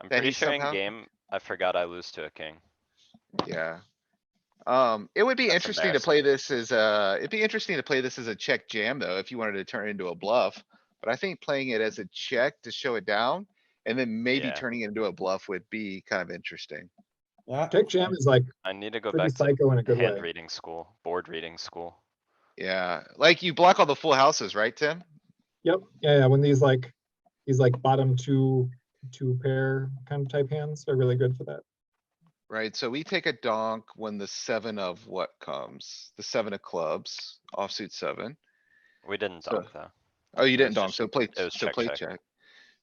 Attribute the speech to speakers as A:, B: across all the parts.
A: I'm
B: that
A: pretty
B: he
A: sure in
B: somehow-
A: game, I forgot I lose to a king.
B: Yeah. Um, it would be
A: That's
B: interesting to play this as a, it'd be interesting to play this as a check jam though, if you wanted to turn it into a bluff. But I think playing it as a check to show it down and then maybe
A: Yeah.
B: turning it into a bluff would be kind of interesting.
C: Yeah,
D: Check jam is like
A: I need to go
D: pretty
A: back to
D: psycho in a good
A: hand
D: way.
A: reading school, board reading school.
B: Yeah, like you block all the full houses, right, Tim?
D: Yep, yeah, yeah, when these like, these like bottom two, two pair kind of type hands are really good for that.
B: Right, so we take a donk when the seven of what comes? The seven of clubs, offsuit seven.
A: We didn't
B: So-
A: dunk though.
B: Oh, you didn't
A: was
B: donk,
A: just-
B: so play,
A: it was
B: so
A: check,
B: play
A: check.
B: check.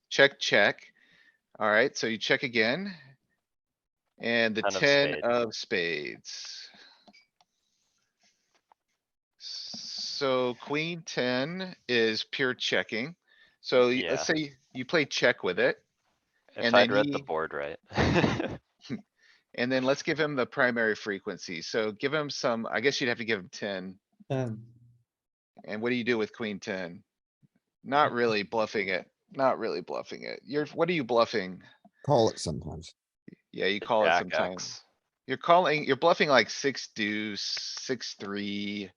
B: Check, check. Alright, so you check again. And the
A: Ten of
B: ten
A: spades.
B: of spades. So queen ten is pure checking. So y- let's say you play check with it.
A: If
B: And
A: I'd
B: then
A: read the
B: he-
A: board right.
B: And then let's give him the primary frequency. So give him some, I guess you'd have to give him ten.
C: ten.
B: And what do you do with queen ten? Not really bluffing it, not really bluffing it. You're, what are you bluffing?
E: Call it sometimes.
B: Yeah, you
A: The
B: call it
A: jack
B: sometimes.
A: X.
B: You're calling, you're bluffing like six deuce, six, three.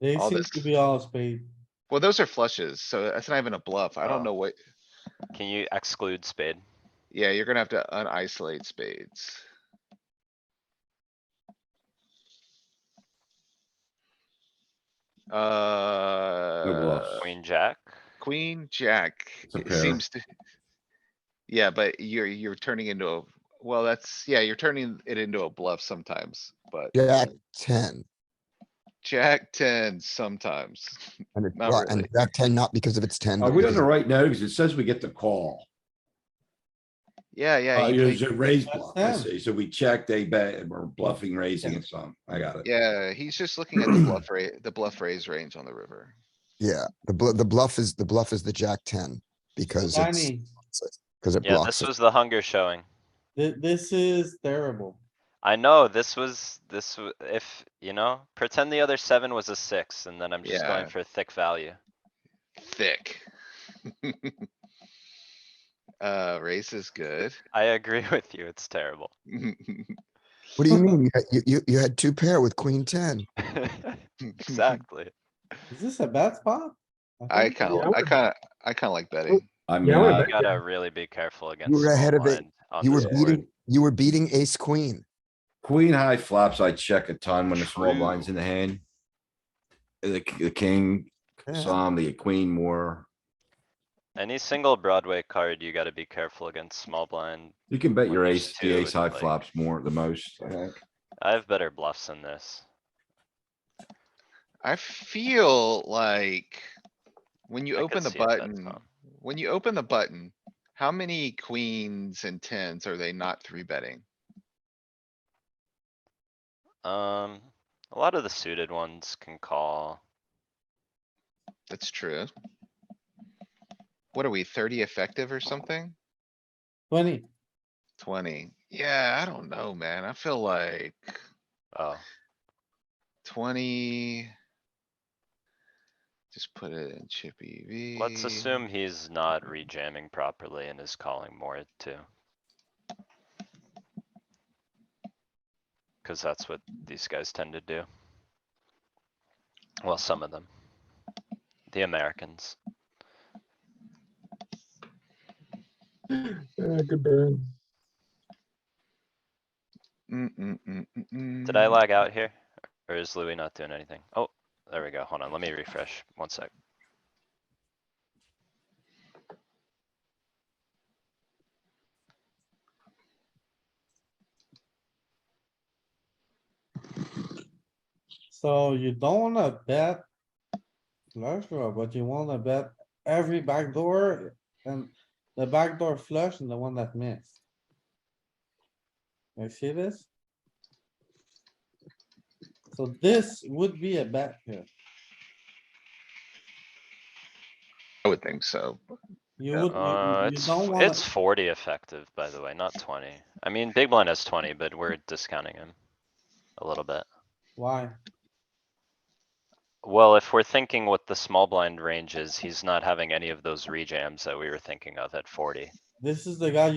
C: They
B: All
C: seem
B: this-
C: to be all spade.
B: Well, those are flushes, so that's not even a bluff. I
A: Oh.
B: don't know what,
A: Can you exclude spade?
B: yeah, you're gonna have to unisolate spades. Uh,
A: Queen, jack?
B: queen, jack
F: a
B: it
F: pair.
B: seems to. Yeah, but you're, you're turning into a, well, that's, yeah, you're turning it into a bluff sometimes, but
E: Jack ten.
B: jack ten sometimes.
E: And it's
B: Not
E: not,
B: really.
E: and Jack ten, not because of its ten.
F: Are
E: but
F: we on
E: because
F: the
E: of-
F: right note? Because it says we get the call.
B: Yeah,
F: Uh,
B: yeah. you
F: it's
B: play-
F: a raise
C: That's
F: bluff. I
C: them.
F: see. So we checked, they bet, we're bluffing, raising and some. I got it.
B: Yeah, he's just looking at the bluff rate, the bluff raise range on the river.
E: Yeah, the bluff, the bluff is, the bluff is the Jack ten because it's,
C: Danny,
E: because it
A: Yeah, this
E: blocks. it.
A: was the hunger showing.
C: thi- this is terrible.
A: I know, this was, this, w- if, you know, pretend the other seven was a six and then I'm just going
B: Yeah.
A: for thick value.
B: Thick. Uh, race is good.
A: I agree with you, it's terrible.
E: What do you mean? You had- You, you, you had two pair with queen ten.
A: Exactly.
C: Is this a bad spot?
B: I
C: think-
B: kinda,
D: Yeah,
B: I
D: we're-
B: kinda, I kinda like betting.
F: I mean,
D: Yeah, we're
F: uh,
A: You
D: back-
A: gotta really be careful against.
E: were ahead
A: small
E: of it.
A: blind on
E: You were
A: this board.
E: beating, you were beating ace queen.
F: queen high flops, I check a ton when the small
A: True.
F: blind's in the hand. The, k- the king,
E: Yeah.
F: some, the queen more.
A: Any single Broadway card, you gotta be careful against small blind.
F: You can bet your
A: Like
F: ace, the
A: two and
F: ace high
A: like-
F: flops more, the most, I think.
A: I have better bluffs than this.
B: I feel like when you
A: I could
B: open the
A: see if that's
B: button,
A: on.
B: when you open the button, how many queens and tens are they not three betting?
A: Um, a lot of the suited ones can call.
B: That's true. What are we, thirty effective or something?
C: Twenty.
B: Twenty. Yeah, I don't know, man. I feel like
A: Oh,
B: twenty. Just put it in chippy V.
A: let's assume he's not rejamming properly and is calling more too. Cause that's what these guys tend to do. Well, some of them. The Americans.
D: Yeah, good burn.
B: Mm,
C: Mm.
A: Did I lag out here? Or is Louis not doing anything? Oh, there we go. Hold on, let me refresh. One sec.
C: So you don't wanna bet flush draw, but you wanna bet every backdoor and the backdoor flush and the one that missed. You see this? So this would be a bet here.
B: I would think so.
C: You
B: Yeah.
C: would,
A: Uh,
C: you- you
A: it's,
C: don't
A: f-
C: wanna,
A: it's forty effective, by the way, not twenty. I mean, Big Blind has twenty, but we're discounting him a little bit.
C: why?
A: Well, if we're thinking what the small blind range is, he's not having any of those rejams that we were thinking of at forty.
C: This is the guy